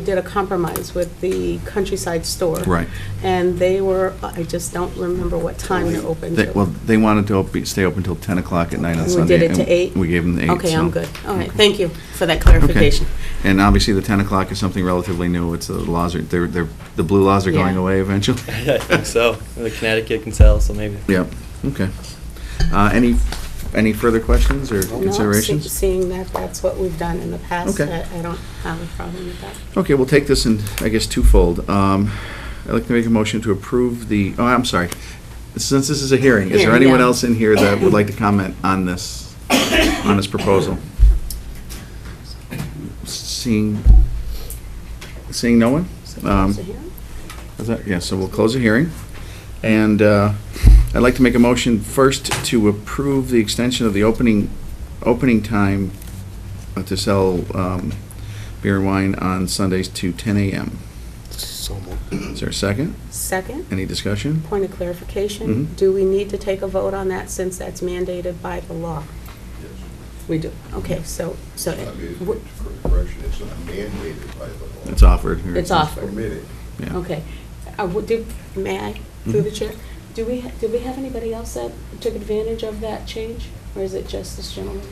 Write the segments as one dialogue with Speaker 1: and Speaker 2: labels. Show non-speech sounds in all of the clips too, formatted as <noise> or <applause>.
Speaker 1: did a compromise with the Countryside Store.
Speaker 2: Right.
Speaker 1: And they were, I just don't remember what time they're open
Speaker 2: They-
Speaker 1: to.
Speaker 2: Well, they wanted to op- stay open till 10 o'clock at night on
Speaker 1: We
Speaker 2: Sunday.
Speaker 1: did it to
Speaker 2: and
Speaker 1: eight?
Speaker 2: We gave them the eight.
Speaker 1: Okay, I'm
Speaker 2: so-
Speaker 1: good. All right,
Speaker 2: Okay.
Speaker 1: thank you for that
Speaker 2: Okay.
Speaker 1: clarification.
Speaker 2: And obviously, the 10 o'clock is something relatively new. It's uh, the laws are, they're, they're, the blue laws are going
Speaker 1: Yeah.
Speaker 2: away eventually.
Speaker 3: <laughs> I think so. The Connecticut can sell, so maybe.
Speaker 2: Yep, okay. Uh, Any, any further questions or
Speaker 1: No, se-
Speaker 2: considerations?
Speaker 1: Seeing that that's what we've done in the past,
Speaker 2: Okay.
Speaker 1: I I don't have a problem with that.
Speaker 2: Okay, we'll take this in, I guess, twofold. Um, I'd like to make a motion to approve the, oh, I'm sorry. Since this is a hearing, is there
Speaker 1: Hearing,
Speaker 2: anyone
Speaker 1: yeah.
Speaker 2: else in here that would like to comment on this, on this proposal? Seeing, seeing no one?
Speaker 1: So,
Speaker 2: Um,
Speaker 1: close the hearing?
Speaker 2: is that- Yeah, so we'll close the hearing. And uh, I'd like to make a motion first to approve the extension of the opening, opening time uh, to sell um, beer and wine on Sundays to 10 a.m. Is there a second?
Speaker 1: Second,
Speaker 2: Any discussion?
Speaker 1: point of clarification,
Speaker 2: Mhm.
Speaker 1: do we need to take a vote on that since that's mandated by the law? We do. Okay, so, so
Speaker 4: I mean,
Speaker 1: w-
Speaker 4: it's correction, it's not mandated by the law.
Speaker 2: It's offered. here.
Speaker 1: It's offered.
Speaker 4: Permitted.
Speaker 2: Yeah. Mm-hmm.
Speaker 1: Okay. Uh, w- do- May I, through the chair? Do we, ha- did we have anybody else that took advantage of that change? Or is it just this gentleman?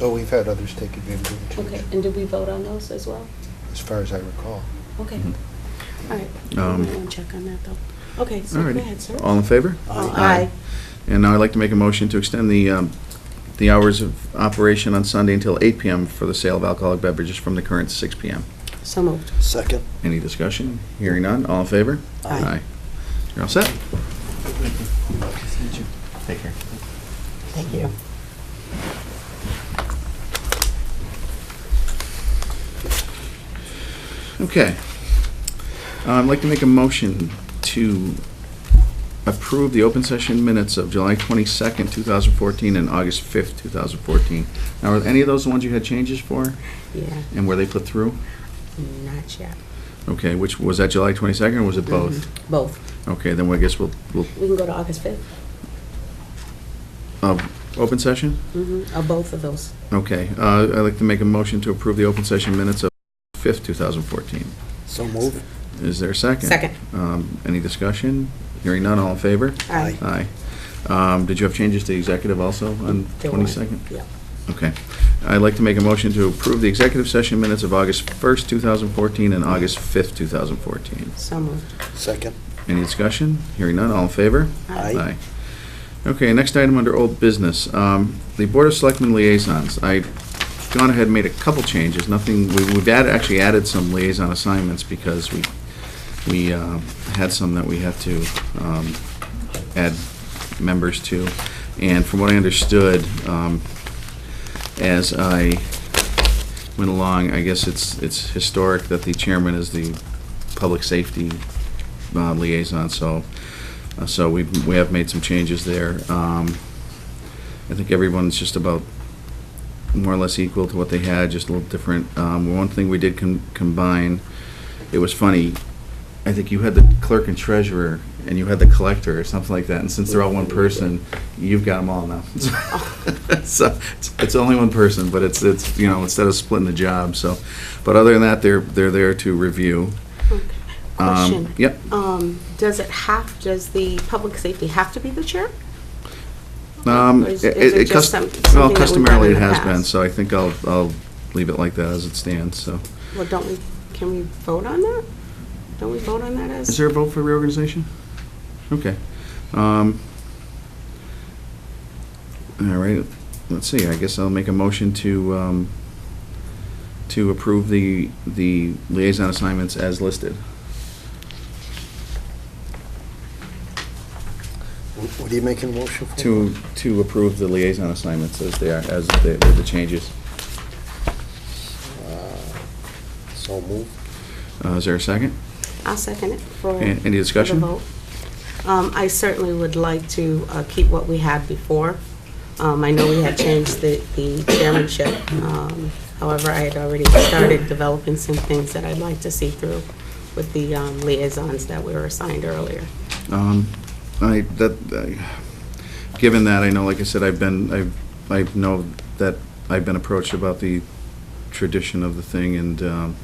Speaker 5: Oh, we've had others take advantage of it too,
Speaker 1: Okay, and did we vote on those as well?
Speaker 5: as far as I recall.
Speaker 1: Okay.
Speaker 2: Mhm.
Speaker 1: All right.
Speaker 2: Um, Uh,
Speaker 1: I'm going to check on that, though. Okay, so
Speaker 2: All
Speaker 1: go
Speaker 2: righty.
Speaker 1: ahead, sir.
Speaker 2: All in favor?
Speaker 1: Oh,
Speaker 2: Aye. And now I'd like to make a motion to extend the, um, the hours of operation on Sunday until 8 p.m. for the sale of alcoholic beverages from the current 6 p.m.
Speaker 1: So moved.
Speaker 5: Second.
Speaker 2: Any discussion? Hearing none, all in favor?
Speaker 1: Aye.
Speaker 2: You're all set?
Speaker 6: Thank you.
Speaker 2: Okay. Uh, I'd like to make a motion to approve the open session minutes of July 22nd, 2014, and August 5th, 2014. Now, are any of those the ones you had changes for,
Speaker 1: Yeah,
Speaker 2: and where they put through?
Speaker 1: not yet.
Speaker 2: Okay, which, was that July 22nd, or was it both?
Speaker 1: Both.
Speaker 2: Okay, then I guess we'll, we'll,
Speaker 1: We can go to August 5th.
Speaker 2: uh, open session?
Speaker 1: Mm-hmm, of both of those.
Speaker 2: Okay, uh, I'd like to make a motion to approve the open session minutes of 5th, 2014.
Speaker 5: So moved.
Speaker 2: Is there a second?
Speaker 1: Second.
Speaker 2: Um, Any discussion? Hearing none, all in favor?
Speaker 1: Aye.
Speaker 2: Aye. Um, Did you have changes to executive also on
Speaker 1: There weren't.
Speaker 2: 22nd?
Speaker 1: Yeah.
Speaker 2: Okay. I'd like to make a motion to approve the executive session minutes of August 1st, 2014, and August 5th, 2014.
Speaker 1: So moved.
Speaker 5: Second.
Speaker 2: Any discussion? Hearing none, all in favor?
Speaker 5: Aye.
Speaker 2: Okay, next item under old business, um, the Board of Selectmen liaisons. I've gone ahead and made a couple changes, nothing, we- we've added, actually added some liaison assignments because we, we um, had some that we had to um, add members to. And from what I understood, um, as I went along, I guess it's, it's historic that the chairman is the public safety uh, liaison, so, uh, so we, we have made some changes there. Um, I think everyone's just about more or less equal to what they had, just a little different. Um, One thing we did com- combine, it was funny, I think you had the clerk and treasurer, and you had the collector, or something like that, and since they're all one person, you've got them all now. <laughs> So, it's- it's only one person, but it's, it's, you know, instead of splitting the job, so. But other than that, they're, they're there to review.
Speaker 1: Okay.
Speaker 2: Um,
Speaker 1: Question.
Speaker 2: Yep.
Speaker 1: Um, does it have, does the public safety have to be the chair?
Speaker 2: Um,
Speaker 1: Or is-
Speaker 2: it,
Speaker 1: is it
Speaker 2: it
Speaker 1: just
Speaker 2: cus-
Speaker 1: some-
Speaker 2: well,
Speaker 1: something that we've done
Speaker 2: customarily
Speaker 1: in
Speaker 2: it
Speaker 1: the
Speaker 2: has
Speaker 1: past?
Speaker 2: been, so I think I'll, I'll leave it like that as it stands, so.
Speaker 1: Well, don't we, can we vote on that? Don't we vote on that as?
Speaker 2: Is there a vote for reorganization? Okay. Um, all right, let's see, I guess I'll make a motion to, um, to approve the, the liaison assignments as listed.
Speaker 5: Wh- What are you making a motion for?
Speaker 2: To, to approve the liaison assignments as they are, as they, with the changes.
Speaker 5: So moved.
Speaker 2: Uh, is there a second?
Speaker 1: I'll second it for.
Speaker 2: A- any
Speaker 1: for the
Speaker 2: discussion?
Speaker 1: vote. Um, I certainly would like to uh, keep what we had before. Um, I know we had changed the the chairmanship. um, However, I had already started developing some things that I'd like to see through with the um, liaisons that we were assigned earlier.
Speaker 2: Um, I, that, I- given that, I know, like I said, I've been, I, I know that I've been approached about the tradition of the thing, and um,